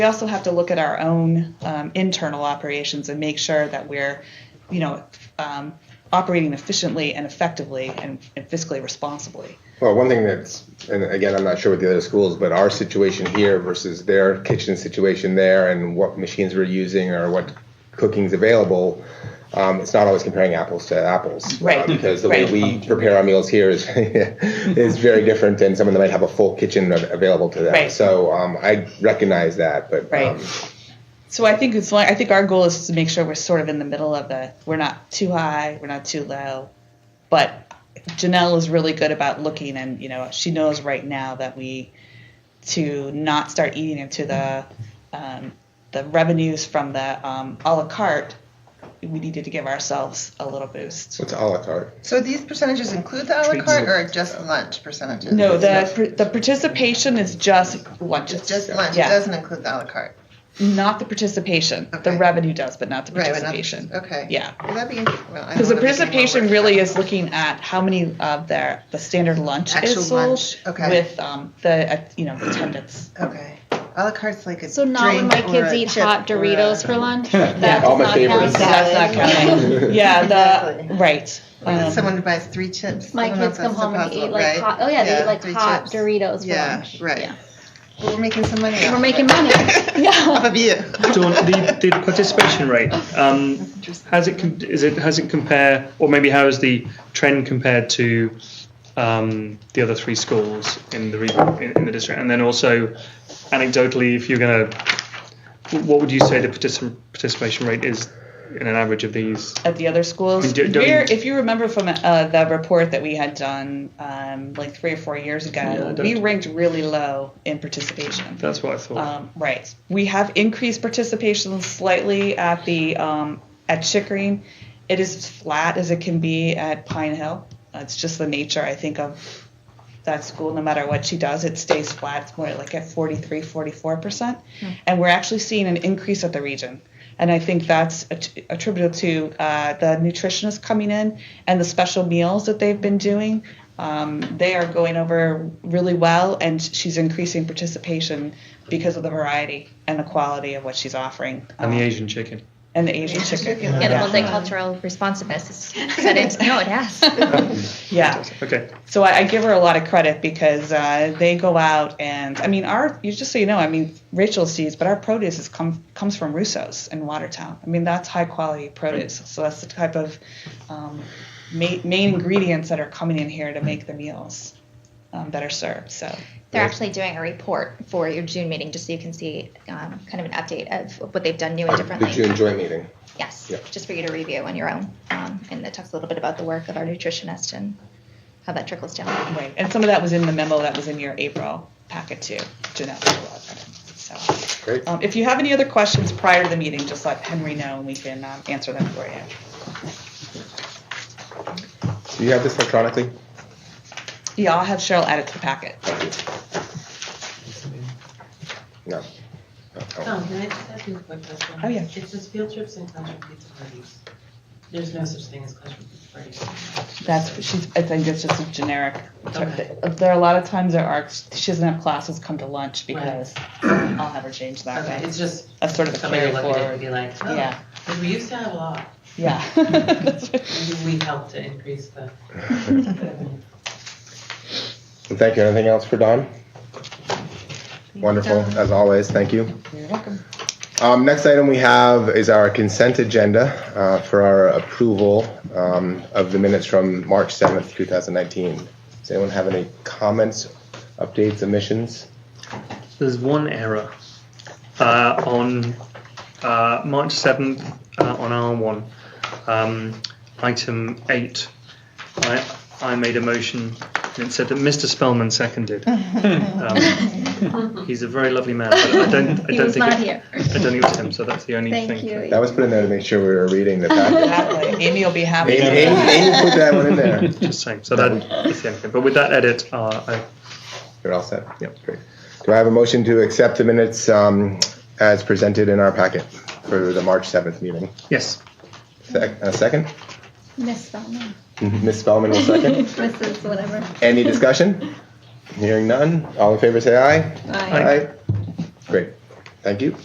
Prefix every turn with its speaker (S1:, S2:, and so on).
S1: We also have to look at our own um, internal operations and make sure that we're, you know, um, operating efficiently and effectively and and fiscally responsibly.
S2: Well, one thing that's, and again, I'm not sure with the other schools, but our situation here versus their kitchen situation there and what machines we're using or what cooking's available, um, it's not always comparing apples to apples. uh,
S1: Right,
S2: because the way
S1: right.
S2: we prepare our meals here is, is very different than someone that might have a full kitchen av- available to them.
S1: Right.
S2: So um, I recognize that, but
S1: Right.
S2: um,
S1: So I think it's like, I think our goal is to make sure we're sort of in the middle of the, we're not too high, we're not too low. But Janelle is really good about looking and, you know, she knows right now that we, to not start eating into the, um, the revenues from the, um, à la carte, we needed to give ourselves a little boost.
S2: it's a la carte.
S3: So these percentages include the a la carte or just lunch percentages?
S1: No, the, the participation is just lunches.
S3: It's just lunch, it
S1: Yeah.
S3: doesn't include the a la carte.
S1: Not the participation. The
S3: Okay.
S1: revenue does, but not the
S3: Right, but not-
S1: participation.
S3: Okay.
S1: Yeah.
S3: Would that be, well, I don't
S1: Because the
S3: wanna make any more
S1: participation
S3: work.
S1: really is looking at how many of their, the standard lunch
S3: Actual
S1: is sold
S3: lunch, okay.
S1: with um, the, uh, you know, attendance.
S3: Okay, a la carte's like a
S4: So not when my
S3: drink or
S4: kids
S3: a
S4: eat
S3: chip
S4: hot
S3: or a-
S4: Doritos for lunch? That
S2: All
S4: does
S2: my
S4: not
S2: favorites.
S4: count.
S1: That's not counting. Yeah, the,
S3: Exactly.
S1: right. Um,
S3: Someone who buys three chips. I
S4: My
S3: don't know
S4: kids
S3: if that's
S4: come home and
S3: possible,
S4: eat like
S3: right?
S4: hot, oh yeah, they eat like
S3: three
S4: hot
S3: chips.
S4: Doritos for
S3: Yeah,
S4: lunch.
S3: right.
S4: Yeah.
S3: Well, We're making some money.
S4: We're making money.
S3: Off
S4: Yeah.
S3: of you.
S5: So on the, the participation rate, um, has it com- is it has it compare or maybe how is the trend compared to um, the other three schools in the re- in, in the district, and then also anecdotally, if you're going to, what would you say the particip- participation rate is in an average of these?
S1: at the other schools.
S5: And do- don't-
S1: We're, if you remember from uh, the report that we had done um, like three or four years
S5: Yeah,
S1: ago,
S5: I don't-
S1: we ranked really low in participation.
S5: That's what I thought.
S1: Um, right. We have increased participation slightly at the um, at Chickering. It is as flat as it can be at Pine Hill. It's just the nature, I think, of that school. No matter what she does, it stays flat. It's more like at 43, 44 percent, and we're actually seeing an increase at the region. And I think that's att- attributable to uh, the nutritionists coming in and the special meals that they've been doing. Um, they are going over really well, and she's increasing participation because of the variety and the quality of what she's offering.
S5: and the
S1: Um,
S5: Asian chicken.
S1: and the Asian chicken.
S3: Yeah,
S6: Yeah, the
S1: Yeah.
S6: multicultural responsiveness is set into no, it has.
S1: Yeah.
S5: Okay.
S1: So I, I give her a lot of credit because uh, they go out and I mean our you just so you know I mean Rachel sees but our produce is come comes from Russo's in Watertown. I mean that's high quality produce. So that's the type of um, ma- main ingredients that are coming in here to make the meals um, that are served. So
S6: They're actually doing a report for your June meeting, just so you can see um, kind of an update of what they've done new and
S2: The
S6: differently.
S2: June joint meeting.
S6: Yes,
S2: Yeah.
S6: just for you to review on your own, um, and it talks a little bit about the work of our nutritionist and how that trickles down.
S1: right, and some of that was in the memo that was in your April packet too. Jeanette, got a lot of credit. So
S2: Great.
S1: um, if you have any other questions prior to the meeting, just let Henry know and we can um, answer them for you.
S2: Do you have this electronically?
S1: Yeah, I'll have Cheryl add it to the packet.
S2: No.
S1: Um,
S2: Oh, oh.
S7: Tom, can I just ask you a quick question?
S1: Oh, yeah.
S7: It says field trips and classroom pizza parties. There's no such thing as classroom pizza parties.
S1: That's she's. I think it's just a generic. term.
S7: Okay.
S1: There are a lot of times there are. She doesn't have classes come to lunch because I'll have her change that.
S7: Okay,
S1: way.
S7: it's just
S1: That's sort of a
S7: somebody
S1: carry
S7: will look at it
S1: forward.
S7: and be like, oh,
S1: Yeah,
S7: but we used to have a lot.
S1: yeah.
S7: Maybe we helped to increase the.
S2: Well, Thank you. Anything else for Don? Wonderful, as always. Thank you.
S1: You're welcome.
S2: Um, next item we have is our consent agenda uh, for our approval um, of the minutes from March 7th, 2019. Does anyone have any comments, updates, omissions?
S5: There's one error uh, on uh, March 7th uh, on R1, um, item 8. I, I made a motion and it said that Mr. Spellman seconded. um, he's a very lovely man, but I don't, I
S6: He
S5: don't
S6: was
S5: think
S6: not
S5: it,
S6: here.
S5: I don't think it was him, so that's the only
S6: Thank
S5: thing.
S6: you.
S2: That was put in there to make sure we were reading the packet.
S1: Exactly. Amy will be happy.
S2: Amy, Amy- Amy put that one in there.
S5: Just saying. So that, that's the only thing. But with that edit, uh, I,
S2: You're all set?
S5: Yep.
S2: Great. Do I have a motion to accept the minutes um, as presented in our packet for the March 7th meeting?
S5: yes.
S2: Sec- A second?
S6: Miss Spellman,
S2: Ms. Mm-hmm. Spellman will second.
S6: Mrs. Whatever.
S2: Any discussion? Hearing none, all in favor say aye.
S5: Aye.
S2: Great. Thank you.